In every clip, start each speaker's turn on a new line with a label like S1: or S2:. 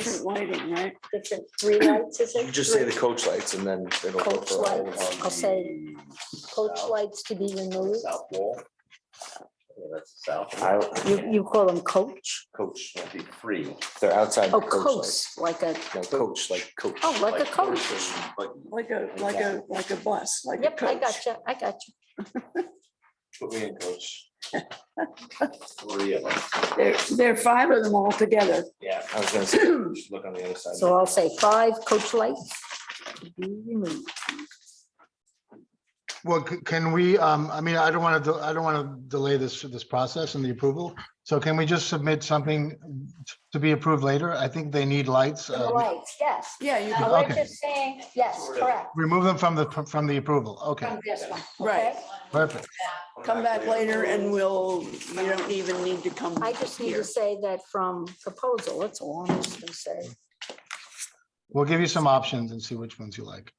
S1: different lighting, right?
S2: different three lights, is it?
S3: You just say the
S2: Three.
S3: coach lights and then it'll go
S2: Coach
S3: for all of
S2: lights.
S3: them.
S2: I'll say coach lights to be removed.
S4: South wall. Yeah, That's the south. wall.
S3: I,
S2: You, you call them coach?
S3: coach,
S4: That'd be free.
S3: they're outside.
S2: Oh,
S3: the coach
S2: coach,
S3: lights.
S2: like a,
S3: No, coach, like coach.
S2: oh, like a coach.
S4: Like,
S1: Like a, like a, like a bus, like a
S2: Yep, I
S1: coach.
S2: got you, I got you.
S3: Put me in coach.
S4: three of them.
S1: There, there are five of them all together.
S3: Yeah, I was gonna say, you should look on the other side.
S2: So I'll say five coach lights to be removed.
S5: Well, c- can we, um, I mean, I don't want to, I don't want to delay this, this process and the approval. So can we just submit something to be approved later? I think they need lights.
S2: The
S5: uh,
S2: Lights, yes.
S1: Yeah, you
S2: Now,
S1: can,
S2: we're
S5: Okay.
S2: just saying, yes, correct,
S5: Remove them from the, from the approval. Okay,
S2: from this one,
S1: right.
S2: okay?
S5: perfect.
S1: Come back later and we'll, you don't even need to come
S2: I just need
S1: here.
S2: to say that from proposal, that's all I'm just gonna say.
S5: We'll give you some options and see which ones you like.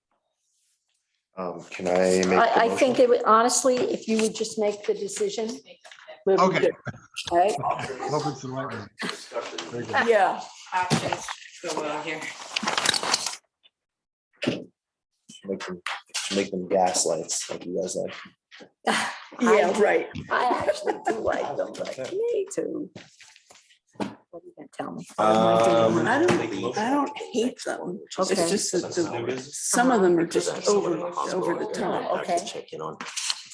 S3: Um, can I make? the
S2: I, I
S3: motion?
S2: think it would, honestly, if you would just make the decision,
S5: Okay.
S2: right?
S5: Hope it's the right one. Very good.
S1: Yeah,
S6: options go well here.
S3: Make them, make them gas lights like you guys like.
S1: yeah, right.
S2: I actually do like them, but I need to. What are you gonna tell me?
S1: Uh,
S3: Um,
S1: I don't, I don't hate them. It's
S2: Okay.
S1: just that
S3: Oh,
S1: the, some of them are just over, over the top.
S2: Okay.
S7: Check in on.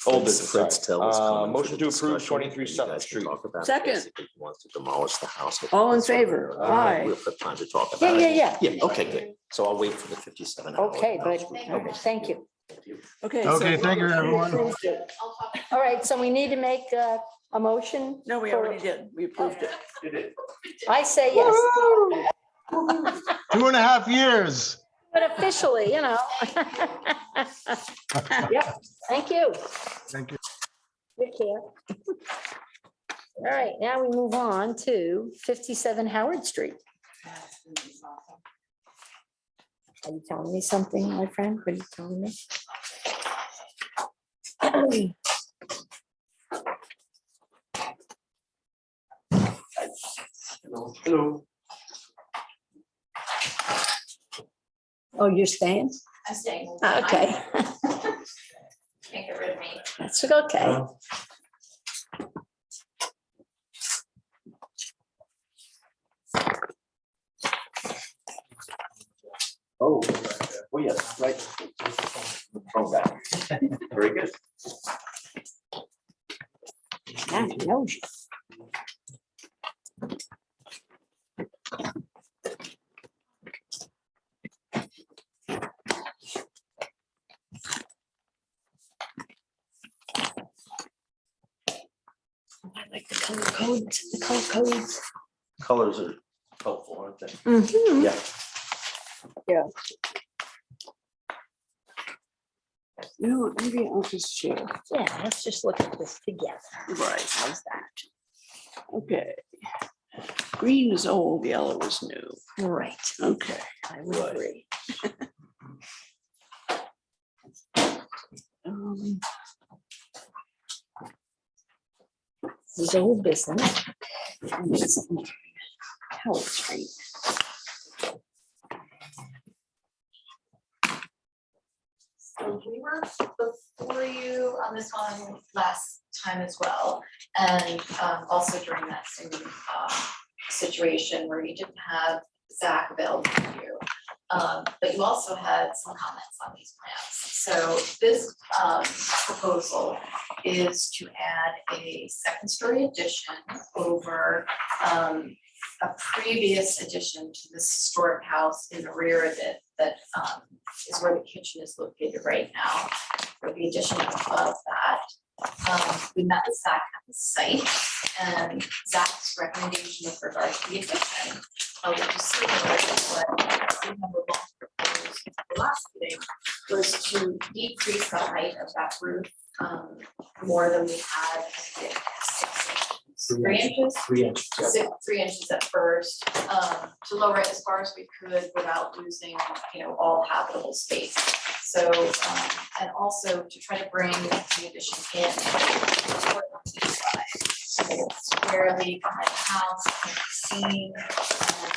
S3: Old business,
S7: Fritz
S3: sorry.
S7: Tell is
S3: Uh,
S7: coming for
S3: motion
S7: the
S3: to approve
S7: discussion,
S3: 23
S7: and you
S3: Sutton
S7: guys can
S3: Street.
S7: talk about it.
S1: Second.
S7: Basically, he Wants to demolish the house.
S1: All in favor?
S7: I don't know if
S1: Aye.
S7: We'll Uh, have time to talk
S2: Yeah,
S7: about it.
S2: yeah,
S7: yeah. Yeah, okay, good. So I'll wait for the fifty-seven. hour
S2: Okay,
S7: house.
S2: but, thank you.
S1: Okay. so-
S5: Okay, thank you, everyone.
S1: Approved it.
S2: All right, so we need to make uh, a motion.
S1: No, we
S2: for-
S1: already did. We approved it.
S2: I say yes,
S5: Two and a half years.
S2: but officially, you know. Yep, thank you.
S5: Thank you.
S2: Good care. All right, now we move on to fifty-seven Howard Street. Are you telling me something, my friend? What are you telling me?
S4: Hello.
S2: Oh, you're staying?
S6: I'm staying.
S2: Ah, Okay,
S6: Can't get rid of me.
S2: that's okay.
S4: Oh, oh, yeah, right. From that. Very good.
S2: I know you. I like the color codes, the color codes.
S4: Colors are helpful, aren't they?
S2: Mhm.
S4: Yeah.
S1: No, maybe I'll just share.
S2: Yeah, let's just look at this together.
S1: Right.
S2: How's that?
S1: Okay. Green is old, yellow is new.
S2: Right,
S1: Okay.
S2: I would agree.
S1: Um,
S2: This is old business. And it's Howard Street.
S6: So we were before you on this one last time as well. And um, also during that same um, situation where you didn't have Zach available for you. Um, But you also had some comments on these plans. So this um, proposal is to add a second story addition over um, a previous addition to this historic house in the rear of it that um, is where the kitchen is located right now, for the addition of that. Um, we met with Zach at the site and Zach's recommendation with regard to the addition. uh, which is similar to what we had proposed at the last meeting, was to decrease the height of that roof, um, more than we had. I think, six inches, Three inches?
S4: Three inches.
S6: six, three inches at first, um, to lower it as far as we could without losing, you know, all habitable space. So, um, and also to try to bring the addition in. so that it's Squarely behind the house, and seen, um,